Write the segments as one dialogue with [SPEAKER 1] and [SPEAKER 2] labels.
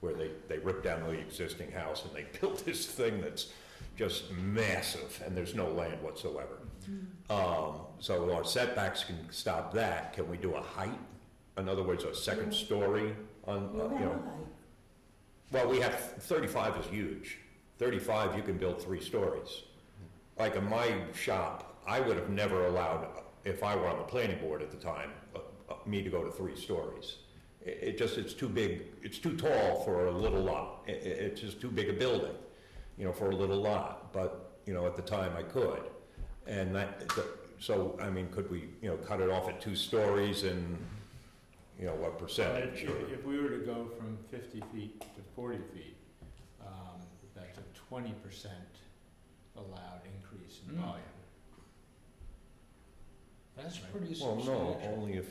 [SPEAKER 1] where they, they ripped down the existing house and they built this thing that's just massive, and there's no land whatsoever. Um, so our setbacks can stop that. Can we do a height? In other words, a second story on, uh,
[SPEAKER 2] Well,
[SPEAKER 1] you know? Well, we have, 35 is huge. 35, you can build three stories. Like in my shop, I would have never allowed, if I were on the planning board at the time, uh, uh, me to go to three stories. I- It, just, it's too big, it's too tall for a little lot. I- I- it's just too big a building, you know, for a little lot. But, you know, at the time I could. And that, the- so, I mean, could we, you know, cut it off at two stories and, you know, what
[SPEAKER 3] If,
[SPEAKER 1] percentage? or-
[SPEAKER 3] if we were to go from fifty feet to forty feet, um, that's a twenty percent allowed increase in
[SPEAKER 4] Hmm.
[SPEAKER 3] volume. That's pretty
[SPEAKER 1] Well, no,
[SPEAKER 3] substantial.
[SPEAKER 1] only if,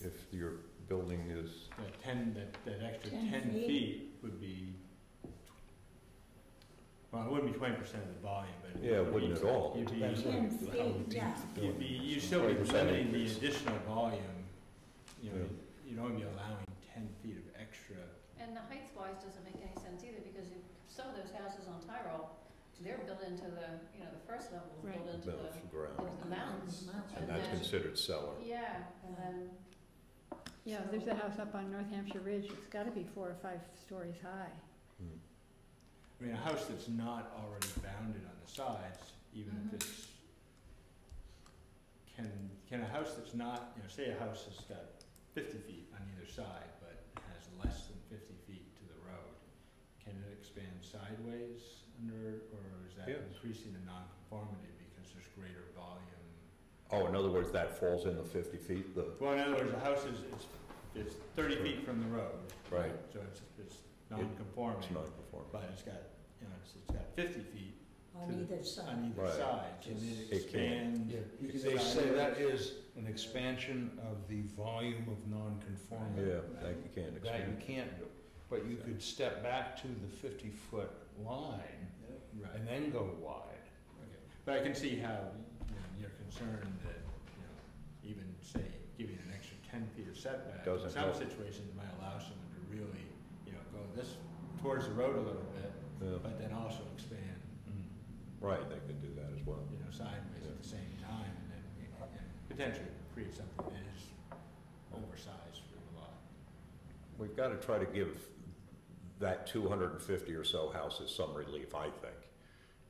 [SPEAKER 1] if your building is,
[SPEAKER 3] That ten, that, that extra
[SPEAKER 2] 10
[SPEAKER 3] ten
[SPEAKER 2] feet.
[SPEAKER 3] feet would be, well, it wouldn't be twenty percent of the volume, but.
[SPEAKER 1] yeah,
[SPEAKER 3] would
[SPEAKER 1] wouldn't
[SPEAKER 3] be-
[SPEAKER 1] at all.
[SPEAKER 3] You'd be,
[SPEAKER 2] Ten feet, yeah.
[SPEAKER 3] you'd be, you'd still be
[SPEAKER 1] 20%
[SPEAKER 3] limiting the
[SPEAKER 1] increase.
[SPEAKER 3] additional volume, you know,
[SPEAKER 1] Yeah.
[SPEAKER 3] you'd only be allowing ten feet of extra.
[SPEAKER 1] oh.
[SPEAKER 5] And the heights wise doesn't make any sense either, because you- some of those houses on Tyrol, they're built into the, you know, the first level is built
[SPEAKER 2] Right.
[SPEAKER 5] into
[SPEAKER 1] No,
[SPEAKER 5] the,
[SPEAKER 1] it's ground,
[SPEAKER 5] into the mountains.
[SPEAKER 1] Oh, and that's
[SPEAKER 5] then-
[SPEAKER 1] considered cellar.
[SPEAKER 5] Yeah, and then.
[SPEAKER 2] Yeah,
[SPEAKER 5] so-
[SPEAKER 2] there's a house up on North Hampshire Ridge, it's gotta be four or five stories high.
[SPEAKER 1] Hmm.
[SPEAKER 3] I mean, a house that's not already bounded on the sides, even
[SPEAKER 5] Mhm.
[SPEAKER 3] if it's, can, can a house that's not, you know, say a house that's got fifty feet on either side, but has less than fifty feet to the road, can it expand sideways under, or is that
[SPEAKER 1] Yes.
[SPEAKER 3] increasing the nonconformity because there's greater volume?
[SPEAKER 1] Oh, in other words, that falls in the fifty feet, the,
[SPEAKER 3] Well, in other words, a house is, is, is thirty feet from the road,
[SPEAKER 1] right,
[SPEAKER 3] so it's, it's non-conforming,
[SPEAKER 1] it's not conforming.
[SPEAKER 3] but it's got, you know, it's, it's got fifty feet
[SPEAKER 2] On either side.
[SPEAKER 3] on either
[SPEAKER 1] Right.
[SPEAKER 3] side, and
[SPEAKER 1] It
[SPEAKER 3] it
[SPEAKER 1] can.
[SPEAKER 3] expands.
[SPEAKER 4] They say that is an expansion of the volume of nonconformity.
[SPEAKER 1] Yeah, that you can't
[SPEAKER 4] That you
[SPEAKER 1] expand.
[SPEAKER 4] can't do, but you could step back to the fifty-foot line
[SPEAKER 3] Right,
[SPEAKER 4] and then go wide.
[SPEAKER 3] okay. But I can see how, you know, you're concerned that, you know, even say, giving an extra ten feet of setback.
[SPEAKER 1] Doesn't
[SPEAKER 3] In some
[SPEAKER 1] help.
[SPEAKER 3] situations might allow someone to really, you know, go this, towards the road a little bit,
[SPEAKER 1] Yeah,
[SPEAKER 3] but then also expand, Hmm.
[SPEAKER 1] Right, they could do that as well.
[SPEAKER 3] you know, sideways at the same time, and then, you know, and potentially create something that is oversized for the lot.
[SPEAKER 1] We've got to try to give that two hundred and fifty or so houses some relief, I think,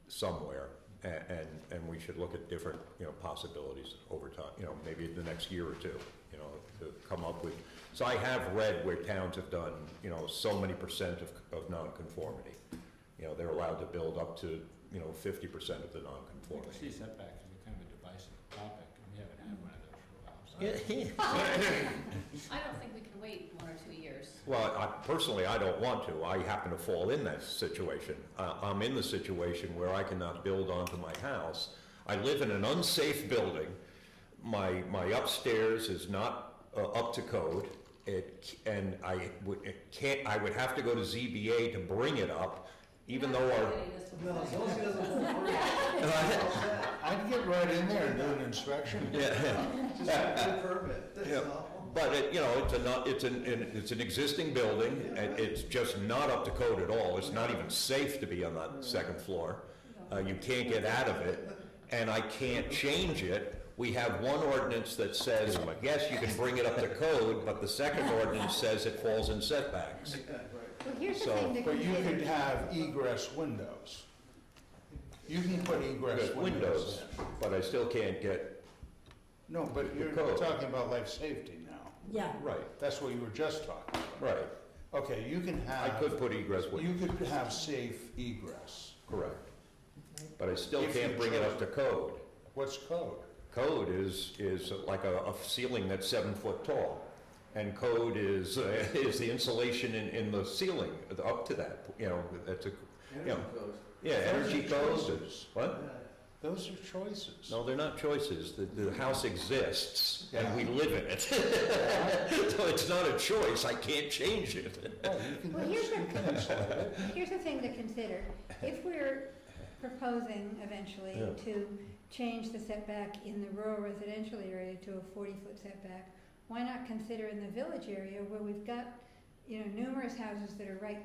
[SPEAKER 1] somewhere. A- And, and we should look at different, you know, possibilities over time, you know, maybe the next year or two, you know, to come up with. So I have read where towns have done, you know, so many percent of, of nonconformity. You know, they're allowed to build up to, you know, fifty percent of the
[SPEAKER 3] Well, the
[SPEAKER 1] nonconformity.
[SPEAKER 3] sea setback is a kind of a divisive topic, and we haven't had one of those for a while, so.
[SPEAKER 5] I don't think we can wait one or two years.
[SPEAKER 1] Well, I, personally, I don't want to. I happen to fall in that situation. Uh, I'm in the situation where I cannot build onto my house. I live in an unsafe building. My, my upstairs is not uh, up to code. It, c- and I would, it can't, I would have to go to ZBA to bring it up, even though our,
[SPEAKER 5] No,
[SPEAKER 4] I'd get right in there and do an inspection.
[SPEAKER 1] yeah, Yeah. But it, you know, it's a not, it's an, an- it's an existing building, and it's just not up to code at all. It's not even safe to be on that second floor. Uh, you can't get out of it, and I can't change it. We have one ordinance that says, yes, you can bring it up to code, but the second ordinance says it falls in setbacks.
[SPEAKER 2] Well, here's the
[SPEAKER 1] So-
[SPEAKER 2] thing to
[SPEAKER 4] But you
[SPEAKER 2] consider.
[SPEAKER 4] could have egress windows. You can put egress
[SPEAKER 1] Good
[SPEAKER 4] windows
[SPEAKER 1] windows,
[SPEAKER 4] in.
[SPEAKER 1] but I still can't get,
[SPEAKER 4] No, but you're
[SPEAKER 1] code.
[SPEAKER 4] talking about life safety now.
[SPEAKER 2] Yeah,
[SPEAKER 1] right,
[SPEAKER 4] That's what you were just talking about.
[SPEAKER 1] right.
[SPEAKER 4] Okay, you can
[SPEAKER 1] I
[SPEAKER 4] have.
[SPEAKER 1] could put egress
[SPEAKER 4] You
[SPEAKER 1] windows,
[SPEAKER 4] could have safe egress.
[SPEAKER 1] correct. But I still
[SPEAKER 4] If you
[SPEAKER 1] can't bring it up to code.
[SPEAKER 4] What's code?
[SPEAKER 1] Code is, is like a, a ceiling that's seven foot tall. And code is, uh, is the insulation in, in the ceiling up to that, you know, that's a, Yeah. yeah, energy codes. and- What?
[SPEAKER 4] Those are choices.
[SPEAKER 1] No, they're not choices. The, the house exists and we
[SPEAKER 4] Yeah.
[SPEAKER 1] live in it. So it's not a choice. I can't change it.
[SPEAKER 4] Oh, you can
[SPEAKER 2] Well,
[SPEAKER 4] have-
[SPEAKER 2] here's the-
[SPEAKER 4] you can insulate it.
[SPEAKER 2] Here's the thing to consider, if we're proposing eventually
[SPEAKER 1] Yeah.
[SPEAKER 2] to change the setback in the rural residential area to a forty-foot setback, why not consider in the village area where we've got, you know, numerous houses that are right